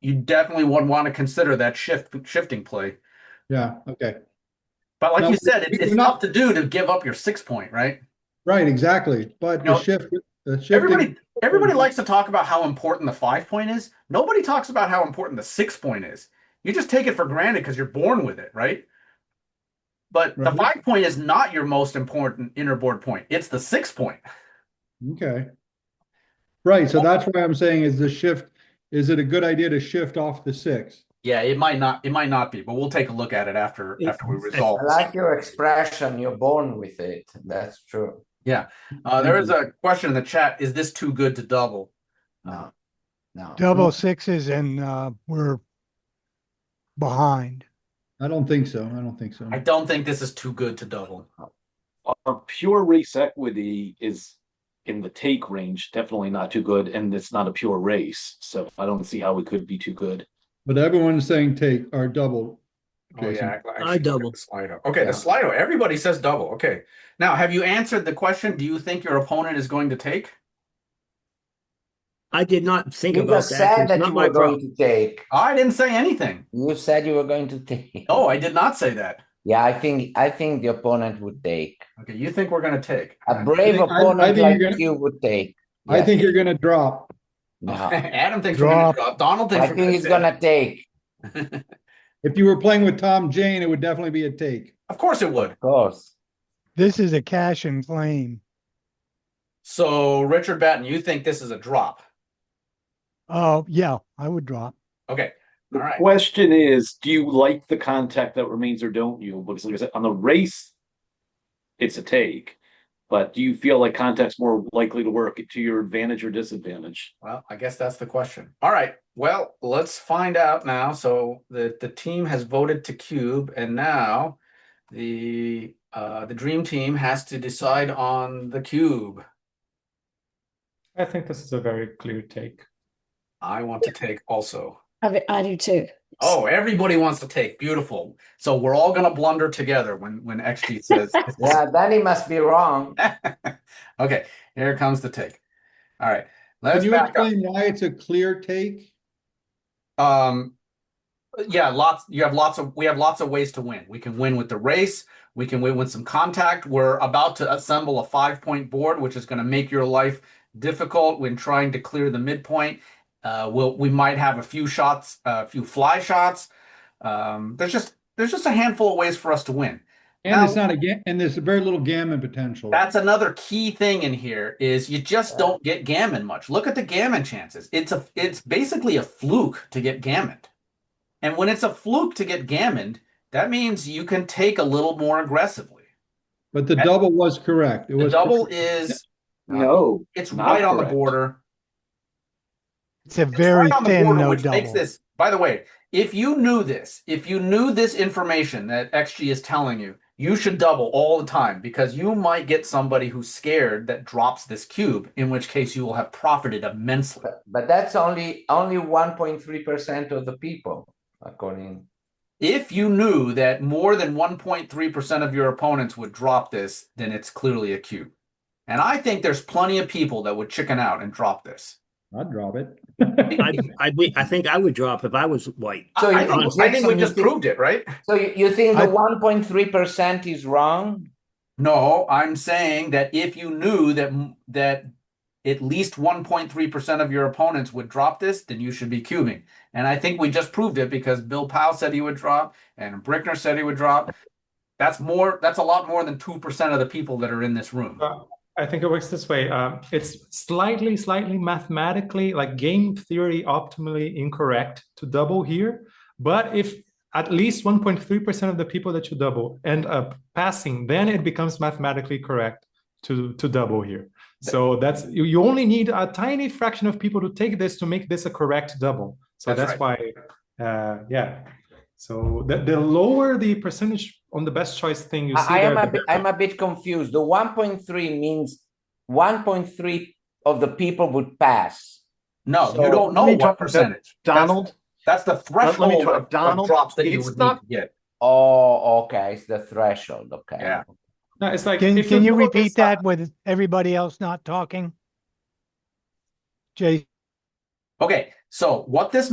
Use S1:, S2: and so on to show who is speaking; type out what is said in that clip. S1: you definitely would want to consider that shift shifting play.
S2: Yeah, okay.
S1: But like
S2: No,
S1: you said, it,
S2: we-
S1: it's
S2: we're not-
S1: tough to do to give up your six point, right?
S2: Right, exactly. But
S1: No.
S2: the shift, the shifting,
S1: Everybody everybody likes to talk about how important the five point is. Nobody talks about how important the six point is. You just take it for granted because you're born with it, right? But the
S2: Right.
S1: five point is not your most important inner board point. It's the six point.
S2: okay. Right, so that's why I'm saying is the shift, is it a good idea to shift off the six?
S1: Yeah, it might not it might not be, but we'll take a look at it after
S3: It's-
S1: after we
S3: it's-
S1: resolve.
S4: I
S1: this.
S4: like your expression, you're born with it. That's true.
S1: Uh, there is a question in the chat. Is this too good to double?
S4: No, no.
S5: double sixes and uh, we're behind.
S2: I don't think so. I don't think so.
S1: I don't think this is too good to double.
S6: our pure race equity is in the take range, definitely not too good, and it's not a pure race, so I don't see how it could be too good.
S2: But everyone's saying take or double.
S1: Oh,
S2: Jason.
S1: yeah, I- I
S3: I
S1: should check
S3: doubled.
S1: the Slido. Okay, the
S4: Yeah.
S1: Slido. Everybody says double. Okay. Now, have you answered the question? Do you think your opponent is going to take?
S3: I did not think
S4: You
S3: about
S4: just
S3: that.
S4: said
S3: It's
S4: that you
S3: not my
S4: were going
S3: problem.
S4: to take.
S1: I didn't say anything.
S4: You said you were going to take.
S1: No, Oh, I did not say that.
S4: Yeah, I think, I think the opponent would take.
S1: Okay, you think we're going to take?
S4: A brave
S2: think- I- I
S4: opponent
S2: think you're
S4: like
S2: gonna-
S4: you would take.
S2: I
S4: Yes.
S2: think you're gonna drop.
S4: No,
S1: Adam thinks we're going
S5: Drop.
S1: to drop. Donald thinks
S4: I
S1: we're
S4: think he's gonna take,
S1: gonna.
S2: If you were playing with Tom Jane, it would definitely be a take.
S1: Of course it would.
S4: of course.
S5: This is a cash and claim.
S1: So, Richard Batten, you think this is a drop?
S5: Oh, yeah, I would drop.
S1: Okay.
S6: The
S1: All right.
S6: question is, do you like the contact that remains or don't you? Because like I said, on the race, it's a take, but do you feel like contact's more likely to work to your advantage or disadvantage?
S1: Well, I guess that's the question. All right. Well, let's find out now. So the the team has voted to cube, and now the uh, the dream team has to decide on the cube.
S7: I think this is a very clear take.
S1: I want to take also.
S8: I, mean, I do too.
S1: Oh, everybody wants to take. Beautiful. So we're all gonna blunder together when when XG says.
S4: Yeah, then he must be wrong.
S1: okay. Here comes the take. All right.
S2: Can
S1: Let's
S2: you
S1: back up.
S2: explain why it's a clear take?
S1: Um, yeah, lots. You have lots of. We have lots of ways to win. We can win with the race. We can win with some contact. We're about to assemble a five-point board, which is going to make your life difficult when trying to clear the midpoint. Uh, we'll, we might have a few shots, a few fly shots. Um, there's just there's just a handful of ways for us to win.
S2: And it's not a ga- and there's very little gammon potential.
S1: That's another key thing in here is you just don't get gammon much. Look at the gammon chances. It's a it's basically a fluke to get gammoned. And when it's a fluke to get gammoned, that means you can take a little more aggressively.
S2: But the double was correct. It
S1: The
S2: was
S1: double
S2: correct.
S1: is
S6: No.
S1: it's
S6: Not
S1: right on the
S6: correct.
S1: border.
S5: It's a
S1: It's
S5: very
S1: right on the
S5: thin
S1: border,
S5: no
S1: which makes
S5: double.
S1: this by the way, if you knew this, if you knew this information that XG is telling you, you should double all the time because you might get somebody who's scared that drops this cube, in which case you will have profited immensely.
S4: But- But that's only, only one point three percent of the people, according.
S1: If you knew that more than 1.3% of your opponents would drop this, then it's clearly a cube. And I think there's plenty of people that would chicken out and drop this.
S2: I'd drop it.
S3: I, I, we- I think I would drop if I was white.
S1: I-
S4: So
S1: I,
S4: you
S1: think,
S4: don't
S1: I think we
S4: think
S1: just
S4: so?
S1: proved it, right?
S4: So you, you think
S2: I-
S4: the one point three percent is wrong?
S1: No, I'm saying that if you knew that m- that at least 1.3% of your opponents would drop this, then you should be cubing. And I think we just proved it because Bill Powell said he would drop and Brickner said he would drop. That's more that's a lot more than 2% of the people that are in this room.
S7: I think it works this way. Um, it's slightly, slightly mathematically, like game theory optimally incorrect to double here. But if at least 1.3% of the people that you double end up passing, then it becomes mathematically correct to, to double here. So that's you, you only need a tiny fraction of people to take this to make this a correct double. So
S1: That's
S7: that's, why, uh, yeah. So the, the lower the percentage on the best choice thing you see,
S4: I I am
S7: there,
S4: a
S7: the
S4: bit,
S7: better.
S4: I'm a bit confused. The one point three means one point three of the people would pass.
S1: No, you
S4: So-
S1: don't
S9: Let
S1: know
S9: me
S1: what
S9: talk about
S1: percentage. That's-
S9: Donald,
S1: That's the
S9: let me
S1: threshold
S9: talk-
S1: of- of
S9: Donald,
S1: drops that you
S9: it's
S1: would need
S9: not-
S1: to get.
S4: Oh, okay, it's the threshold, okay.
S1: Yeah.
S7: No, it's like
S5: Can,
S7: if
S5: can you
S7: double this
S5: repeat
S7: up-
S5: that with everybody else not talking? Jason?
S1: Okay, so what this